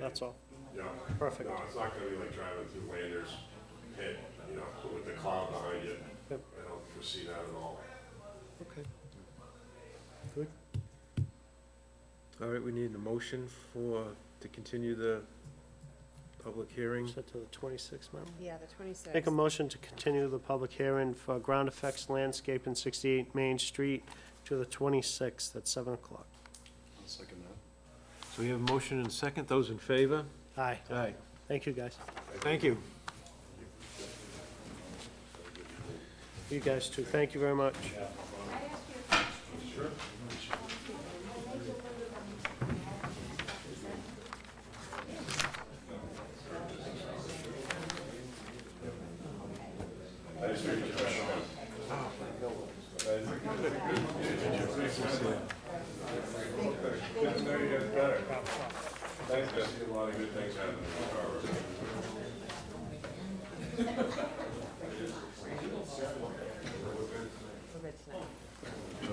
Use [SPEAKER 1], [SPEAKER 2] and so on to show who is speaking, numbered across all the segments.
[SPEAKER 1] that's all.
[SPEAKER 2] You know?
[SPEAKER 1] Perfect.
[SPEAKER 2] No, it's not gonna be like driving through Landers pit, you know, with the cloud behind you.
[SPEAKER 1] Yep.
[SPEAKER 2] I don't foresee that at all.
[SPEAKER 1] Okay. Good.
[SPEAKER 3] All right, we need a motion for, to continue the public hearing.
[SPEAKER 1] Set to the twenty-sixth, ma'am.
[SPEAKER 4] Yeah, the twenty-sixth.
[SPEAKER 1] Make a motion to continue the public hearing for ground effects landscape in sixty-eight Main Street to the twenty-sixth at seven o'clock.
[SPEAKER 5] I'll second that.
[SPEAKER 3] So we have a motion and a second, those in favor?
[SPEAKER 1] Aye.
[SPEAKER 3] Aye.
[SPEAKER 1] Thank you, guys.
[SPEAKER 3] Thank you.
[SPEAKER 1] You guys too. Thank you very much.
[SPEAKER 2] Thanks, I see a lot of good things happening in the car.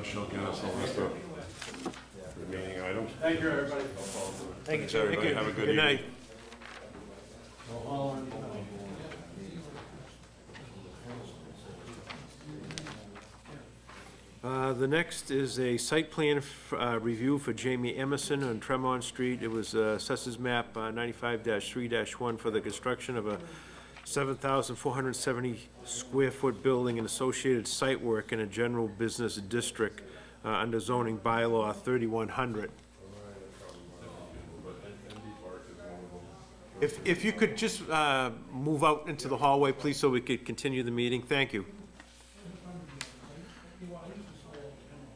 [SPEAKER 2] She'll get us all this stuff. Remaining items. Thank you, everybody. Thanks, everybody. Have a good evening.
[SPEAKER 3] Good night. Uh, The next is a site plan f- uh, review for Jamie Emerson on Tremont Street. It was uh, Assessors Map uh, 95-3-1 for the construction of a 7,470-square-foot building and associated site work in a general business district uh, under zoning bylaw 3100. If, if you could just uh, move out into the hallway, please, so we could continue the meeting, thank you.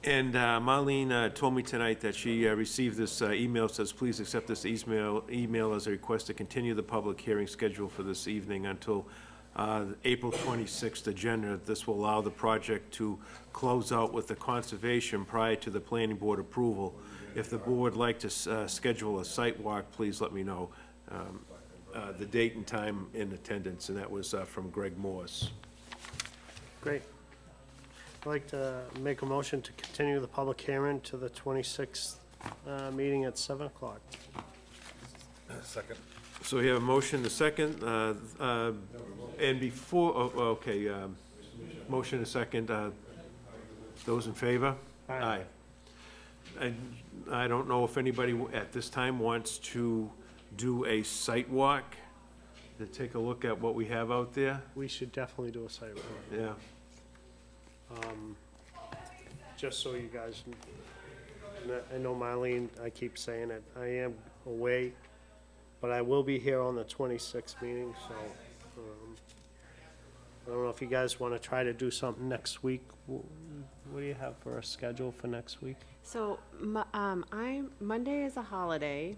[SPEAKER 3] And uh, Marlene uh, told me tonight that she uh, received this uh, email, says, please accept this email, email as a request to continue the public hearing schedule for this evening until uh, April 26th agenda. This will allow the project to close out with the conservation prior to the planning board approval. If the board would like to s- uh, schedule a site walk, please let me know um, uh, the date and time in attendance, and that was uh, from Greg Morse.
[SPEAKER 1] Great. I'd like to make a motion to continue the public hearing to the twenty-sixth, uh, meeting at seven o'clock.
[SPEAKER 3] So we have a motion, the second, uh, uh, and before, oh, oh, okay, um, motion, a second, uh, those in favor?
[SPEAKER 1] Aye.
[SPEAKER 3] And I don't know if anybody at this time wants to do a site walk, to take a look at what we have out there,
[SPEAKER 1] We should definitely do a site walk.
[SPEAKER 3] yeah.
[SPEAKER 1] just so you guys, kn- I know Marlene, I keep saying it, I am away, but I will be here on the twenty-sixth meeting, so, um, I don't know if you guys wanna try to do something next week. Wh- What do you have for a schedule for next week?
[SPEAKER 4] So, mo- um, I'm, Monday is a holiday,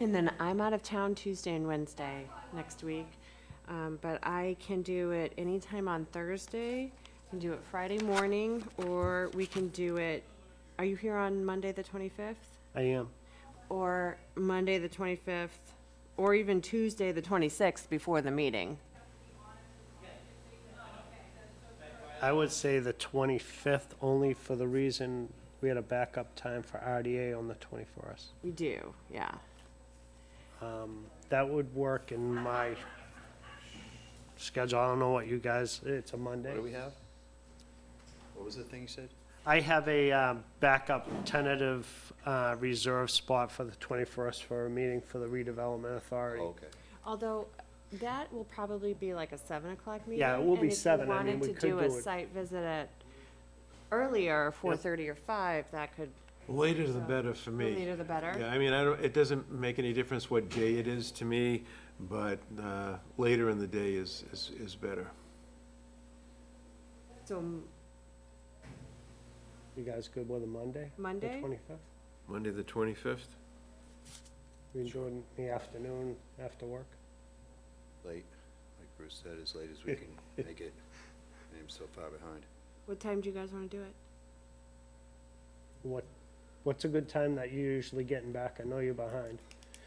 [SPEAKER 4] and then I'm out of town Tuesday and Wednesday next week. Um, but I can do it anytime on Thursday, I can do it Friday morning, or we can do it, are you here on Monday, the twenty-fifth?
[SPEAKER 1] I am.
[SPEAKER 4] Or Monday, the twenty-fifth, or even Tuesday, the twenty-sixth, before the meeting?
[SPEAKER 1] I would say the twenty-fifth, only for the reason we had a backup time for RDA on the twenty-first.
[SPEAKER 4] We do, yeah.
[SPEAKER 1] That would work in my schedule, I don't know what you guys, it's a Monday.
[SPEAKER 5] What do we have? What was the thing you said?
[SPEAKER 1] I have a um, backup tentative uh, reserve spot for the 21st for a meeting for the redevelopment authority.
[SPEAKER 5] Okay.
[SPEAKER 4] Although, that will probably be like a seven o'clock meeting.
[SPEAKER 1] Yeah, it will be
[SPEAKER 4] and if you
[SPEAKER 1] 7. I mean, we could
[SPEAKER 4] Wanted to
[SPEAKER 1] do
[SPEAKER 4] do a
[SPEAKER 1] it-
[SPEAKER 4] site visit at earlier, four thirty or five, that could,
[SPEAKER 3] Later the better for
[SPEAKER 4] the
[SPEAKER 3] me.
[SPEAKER 4] later the
[SPEAKER 3] Yeah,
[SPEAKER 4] better.
[SPEAKER 3] I mean, I don't, it doesn't make any difference what day it is to me, but uh, later in the day is, is, is better.
[SPEAKER 4] So m-
[SPEAKER 1] You guys good with a Monday?
[SPEAKER 4] Monday?
[SPEAKER 1] The 25th?
[SPEAKER 3] Monday, the 25th?
[SPEAKER 1] We can do it in the afternoon after work?
[SPEAKER 5] Late, like Bruce said, as late as we can make it. And I'm so far behind.
[SPEAKER 4] what time do you guys wanna do it?
[SPEAKER 1] What, what's a good time that you're usually getting back? I know you're behind.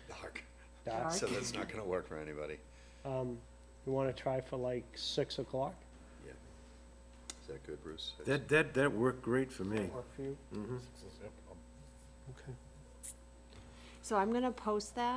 [SPEAKER 5] Dark.
[SPEAKER 1] Doc,
[SPEAKER 5] So that's not gonna work for anybody.
[SPEAKER 1] um, You want to try for like 6 o'clock?
[SPEAKER 5] Is that good, Bruce?
[SPEAKER 3] That, that, that worked great for me.
[SPEAKER 1] Work for you?
[SPEAKER 4] So I'm gonna post that